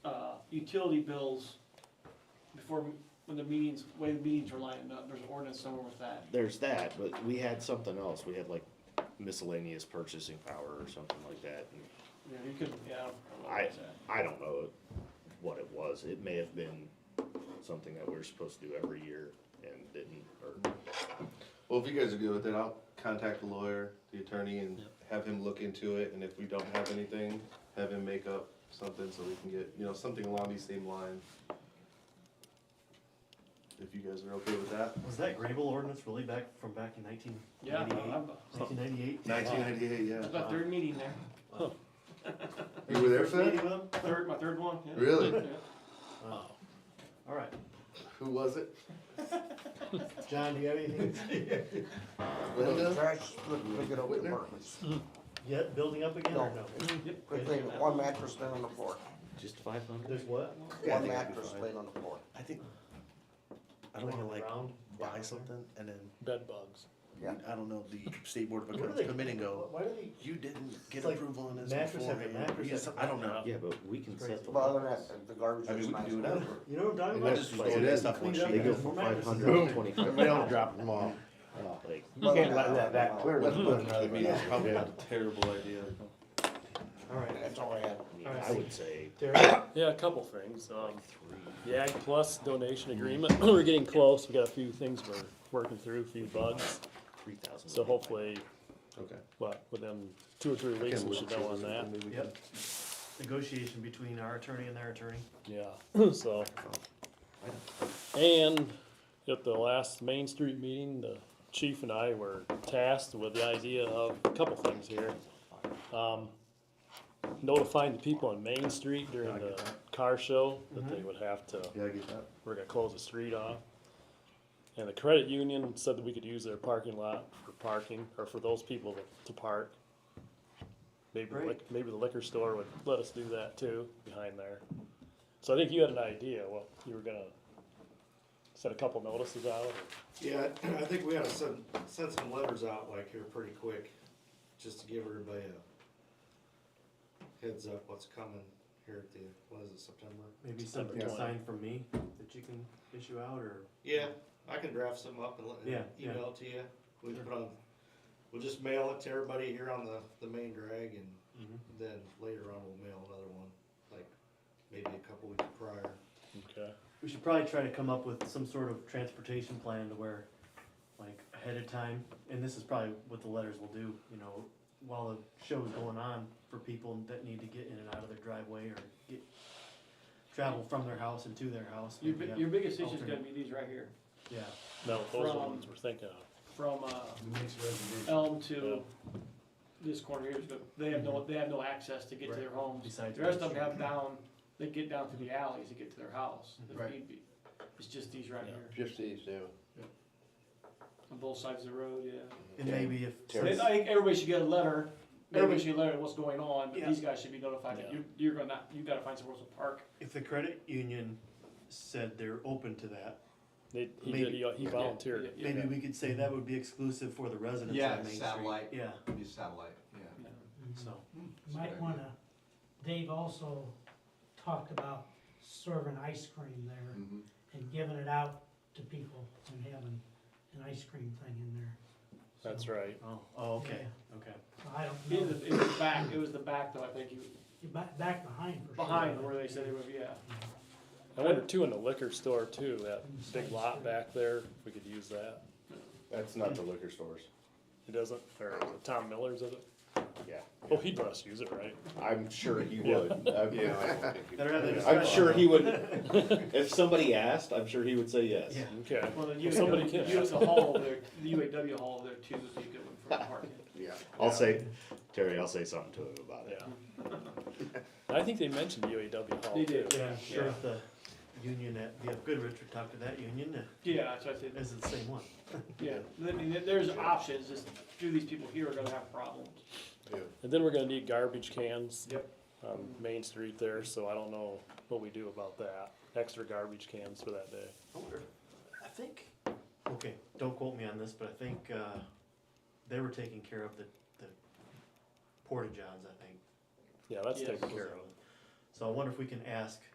uh, utility bills before, when the meetings, way the meetings were lined up, there's an ordinance somewhere with that. There's that, but we had something else. We had like miscellaneous purchasing power or something like that. and You know, you could, yeah. don't know I, what's that. I don't know what it was. It may have been something that we're supposed to do every year and didn't, or, Well, if you guys are good with it, I'll contact the lawyer, the attorney, and have him look into it, and if we don't have anything, have him make up something so we can get, you know, something along these same lines. If you guys are okay with that. Was that Grable ordinance really back from back in nineteen Yeah, ninety-eight? I- I'm- Nineteen ninety-eight? Nineteen ninety-eight, It was yeah. my third meeting there, You were there for that? third, my third one, yeah. Really? Yeah. Oh. All right, Who was it? John, do you have anything? Linda? Trash, look, look it up in Whitner? apartments. Yet building up again or no? No. Yep. Good thing, one mattress laying on the floor, Just five hundred? There's what? Yeah, I one think it'd be mattress fine. laying on the floor. I think, I don't wanna like Round, buy round. something and then, bed bugs. I don't know, the state board of What do accounts they- come in and Why go, why do they, you didn't get It's like approval on this mattress after beforehand. mattress You after some- I don't know. mattress. Yeah, Yeah, but we can Crazy. set the. But other than that, the garbage I mean, is we can do it nice. now. you know what I'm talking I about? just like- it is. stuff once Cleaned up you They go after for the mattress. five hundred and twenty-five. We don't drop them off. Like, You can't let that back clear. Let's put uh, another meeting, it's probably not a terrible idea. All right, That's all I had. I mean, All right. I would say Derek, Yeah, a couple things. Um, the Ag Plus donation agreement, we're getting close. We got a few things we're working through, a few bugs. three thousand. So hopefully, Okay. what, within two or three weeks, we should know on that. yep. Negotiation between our attorney and their attorney. Yeah, so. And at the last Main Street meeting, the chief and I were tasked with the idea of a couple things here. Um, Notifying the people on Main Street during the car show that they would have to, Yeah, I get that. we're gonna close the street off. And the credit union said that we could use their parking lot for parking, or for those people to- to park. Maybe, the lic- Right. maybe the liquor store would let us do that too, behind there. So I think you had an idea, what, you were gonna set a couple notices out, or- Yeah, I think we ought to send, send some letters out like here pretty quick, just to give everybody a heads up what's coming here at the, what is it, September? Maybe September something 20. signed from me that you can issue out or? Yeah, I can draft some up and let, Yeah, and yeah. email it to you. We can put on, we'll just mail it to everybody here on the, the main drag and Mhm. then later on we'll mail another one, like maybe a couple weeks prior. okay? We should probably try to come up with some sort of transportation plan to where, like, ahead of time, and this is probably what the letters will do, you know, while the show is going on, for people that need to get in and out of their driveway or get, travel from their house and to their house. Your, maybe bi- have- your biggest issue's gonna be these right here, Yeah, No, those are the From- ones we're thinking of. from, uh, Elm to this corner here, but they have no, they have no access to get to their homes. besides. The rest of them have down, they get down through the alleys to get to their house, if Right. need be. It's just these right Yeah. here, Just these two. on both sides of the road, yeah. And maybe if, I since- think everybody should get a letter, everybody Maybe. should get a letter of what's going on, but Yeah. these guys should be notified that Yeah. you, you're gonna, you gotta find somewhere else to park. if the credit union said they're open to that, They, he Maybe- did, he- he volunteered. Yeah, maybe we could say that would be exclusive for the residents Yeah, on Main Street. satellite. Yeah, Be satellite, yeah. yeah. so, Might wanna, Dave also talked about serving ice cream there Mm. and giving it out to people and having an ice cream thing in there. So, That's right. oh, oh, okay, okay. I don't It know, was, it was back, it was the back though, I think, you, You're back, back behind for sure. behind where they said it was, yeah. I wonder too, in the liquor store too, that big lot back there, if we could use that. That's not the liquor stores. He doesn't, or Tom Miller's, is it? Yeah. Oh, he'd let us use it, right? I'm sure he Yeah. would. I'm- Better have the I'm discussion. sure he would, if somebody asked, I'm sure he would say yes. Yeah. Okay. Well, then If somebody you, can- you have the hall there, the UAW hall there too, so you could one for the parking. Yeah. I'll say, Terry, I'll say something to him about it. Yeah. I think they mentioned UAW Hall They too. did. Yeah, sure, if the union at, yeah, good, Richard, talk to that union, uh, Yeah, that's what I said, is it the same one? yeah, I mean, there- there's options, just do these people here are gonna have problems. And then we're gonna need garbage cans. Yep. On Main Street there, so I don't know what we do about that. Extra garbage cans for that day. I wonder- I think, okay, don't quote me on this, but I think, uh, they were taking care of the, the porta johns, I think. Yeah, that's Yes. taken was care that of. one. So I wonder if we can ask